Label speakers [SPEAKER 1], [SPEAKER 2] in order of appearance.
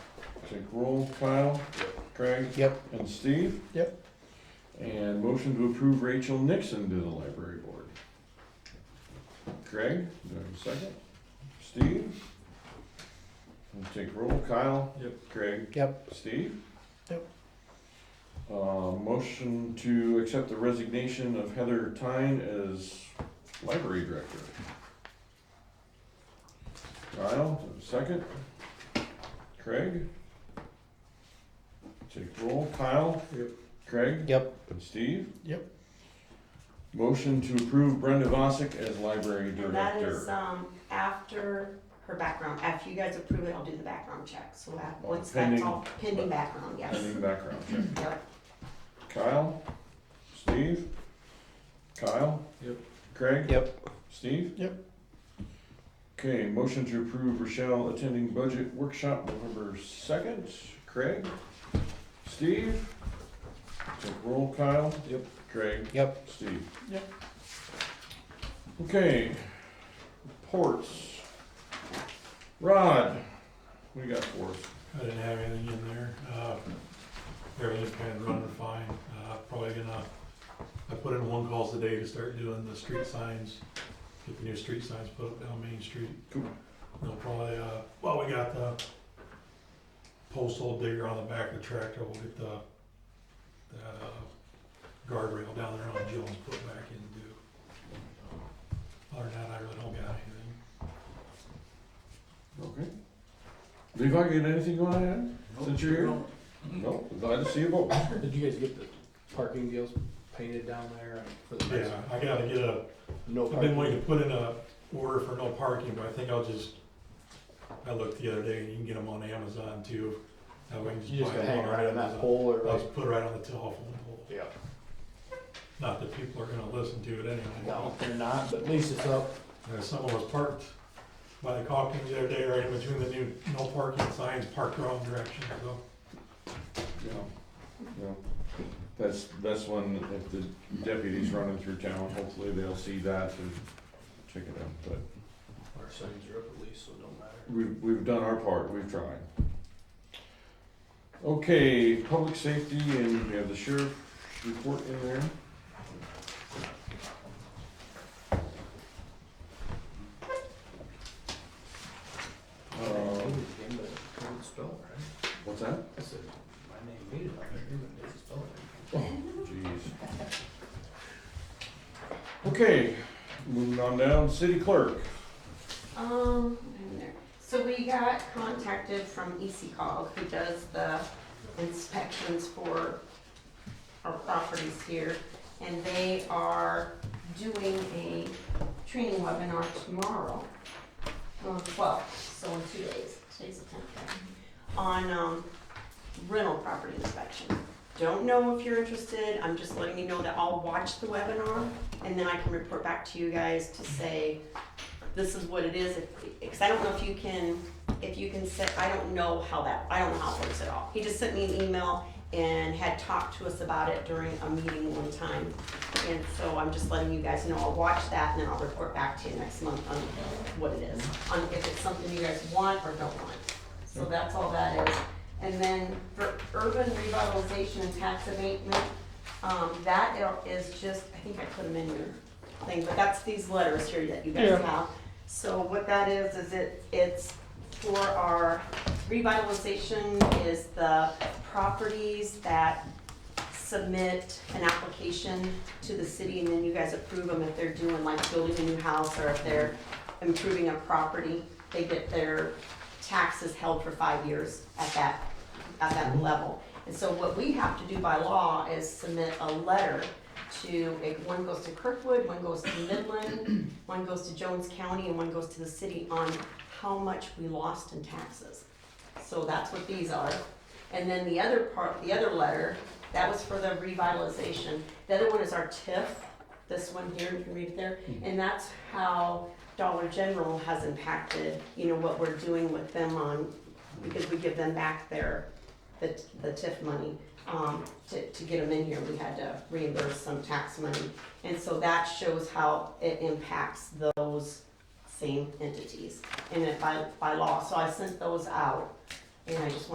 [SPEAKER 1] take roll, Kyle, Craig,
[SPEAKER 2] Yep.
[SPEAKER 1] and Steve.
[SPEAKER 2] Yep.
[SPEAKER 1] And motion to approve Rachel Nixon to the library board. Craig, do I have a second? Steve? We'll take roll, Kyle.
[SPEAKER 3] Yep.
[SPEAKER 1] Craig,
[SPEAKER 2] Yep.
[SPEAKER 1] Steve?
[SPEAKER 2] Yep.
[SPEAKER 1] Uh, motion to accept the resignation of Heather Tyne as library director. Kyle, second. Craig? Take roll, Kyle?
[SPEAKER 3] Yep.
[SPEAKER 1] Craig?
[SPEAKER 2] Yep.
[SPEAKER 1] And Steve?
[SPEAKER 2] Yep.
[SPEAKER 1] Motion to approve Brenda Vossick as library
[SPEAKER 4] And that is,
[SPEAKER 1] director.
[SPEAKER 4] um, after her background, after you guys approve it, I'll do the background check, so that, once that's
[SPEAKER 1] Pending-
[SPEAKER 4] all pending background, yes.
[SPEAKER 1] Pending background check.
[SPEAKER 4] Yep,
[SPEAKER 1] Kyle? Steve? Kyle?
[SPEAKER 3] Yep.
[SPEAKER 1] Craig?
[SPEAKER 2] Yep.
[SPEAKER 1] Steve?
[SPEAKER 2] Yep.
[SPEAKER 1] Okay, motion to approve Rochelle attending budget workshop November second. Craig? Steve? Take roll, Kyle?
[SPEAKER 3] Yep.
[SPEAKER 1] Craig?
[SPEAKER 2] Yep.
[SPEAKER 1] Steve?
[SPEAKER 2] Yep.
[SPEAKER 1] Okay, ports. Rod, what do you got for us?
[SPEAKER 3] I didn't have anything in there. Uh, Everything's kind of running fine. Uh, Probably gonna, I put in one call today to start doing the street signs, get the new street signs put up down Main Street.
[SPEAKER 1] Cool.
[SPEAKER 3] They'll probably, uh, well, we got the postal digger on the back of the tractor. We'll get the the, uh, guardrail down there on Jones put back in too. Other than that, I really don't got anything.
[SPEAKER 1] Okay. Levi, you got anything you wanna add? Since you're here? No, glad to see you both.
[SPEAKER 5] Did you guys get the parking deals painted down there for the next?
[SPEAKER 3] Yeah, I gotta get a
[SPEAKER 5] No
[SPEAKER 3] I've been
[SPEAKER 5] parking?
[SPEAKER 3] wanting to put in a order for no parking, but I think I'll just, I looked the other day, and you can get them on Amazon too. That way I can
[SPEAKER 5] You just
[SPEAKER 3] buy
[SPEAKER 5] gotta
[SPEAKER 3] them
[SPEAKER 5] hang right on that
[SPEAKER 3] Amazon.
[SPEAKER 5] pole or
[SPEAKER 3] I'll
[SPEAKER 5] like?
[SPEAKER 3] just put it right on the telephone pole,
[SPEAKER 5] Yeah.
[SPEAKER 3] not that people are gonna listen to it anyway.
[SPEAKER 5] No, they're not, but at least it's up.
[SPEAKER 3] There's someone was parked by the Calkins the other day, right in between the new no parking signs, parked wrong direction, so.
[SPEAKER 1] Yeah, yeah. That's, that's when, if the deputy's running through town, hopefully they'll see that and check it out, but
[SPEAKER 5] Our signs are up at least, so it don't matter.
[SPEAKER 1] we've, we've done our part, we've tried. Okay, public safety, and we have the sheriff report in there. Um, What's that?
[SPEAKER 5] I said, my name made it, it doesn't spell it
[SPEAKER 1] Jeez. Okay, moving on down, city clerk.
[SPEAKER 4] um, in there. so we got contacted from E EC Cog, who does the inspections for our properties here, and they are doing a training webinar tomorrow, on the twelfth, so in two days, today's the tenth, right? on, um, rental property inspection. Don't know if you're interested, I'm just letting you know that I'll watch the webinar, and then I can report back to you guys to say, this is what it is, because I don't know if you can, if you can set, I don't know how that, I don't know how it works at all. He just sent me an email and had talked to us about it during a meeting one time. And so I'm just letting you guys know, I'll watch that and then I'll report back to you next month on what it is, on if it's something you guys want or don't want. So that's all that is. And then for urban revitalization and tax abatement, um, that is just, I think I put them in your thing, but that's these letters here that you guys
[SPEAKER 2] Yeah.
[SPEAKER 4] have. So what that is, is it, it's for our revitalization is the properties that submit an application to the city and then you guys approve them if they're doing like building a new house or if they're improving a property, they get their taxes held for five years at that, at that level. And so what we have to do by law is submit a letter to, if one goes to Kirkwood, one goes to Midland, one goes to Jones County, and one goes to the city on how much we lost in taxes. So that's what these are. And then the other part, the other letter, that was for the revitalization. The other one is our TIF, this one here, you can read it there. And that's how Dollar General has impacted, you know, what we're doing with them on, because we give them back their, the, the TIF money. Um, to, to get them in here, we had to reimburse some tax money. And so that shows how it impacts those same entities. And it by, by law, so I sent those out. And I just wanted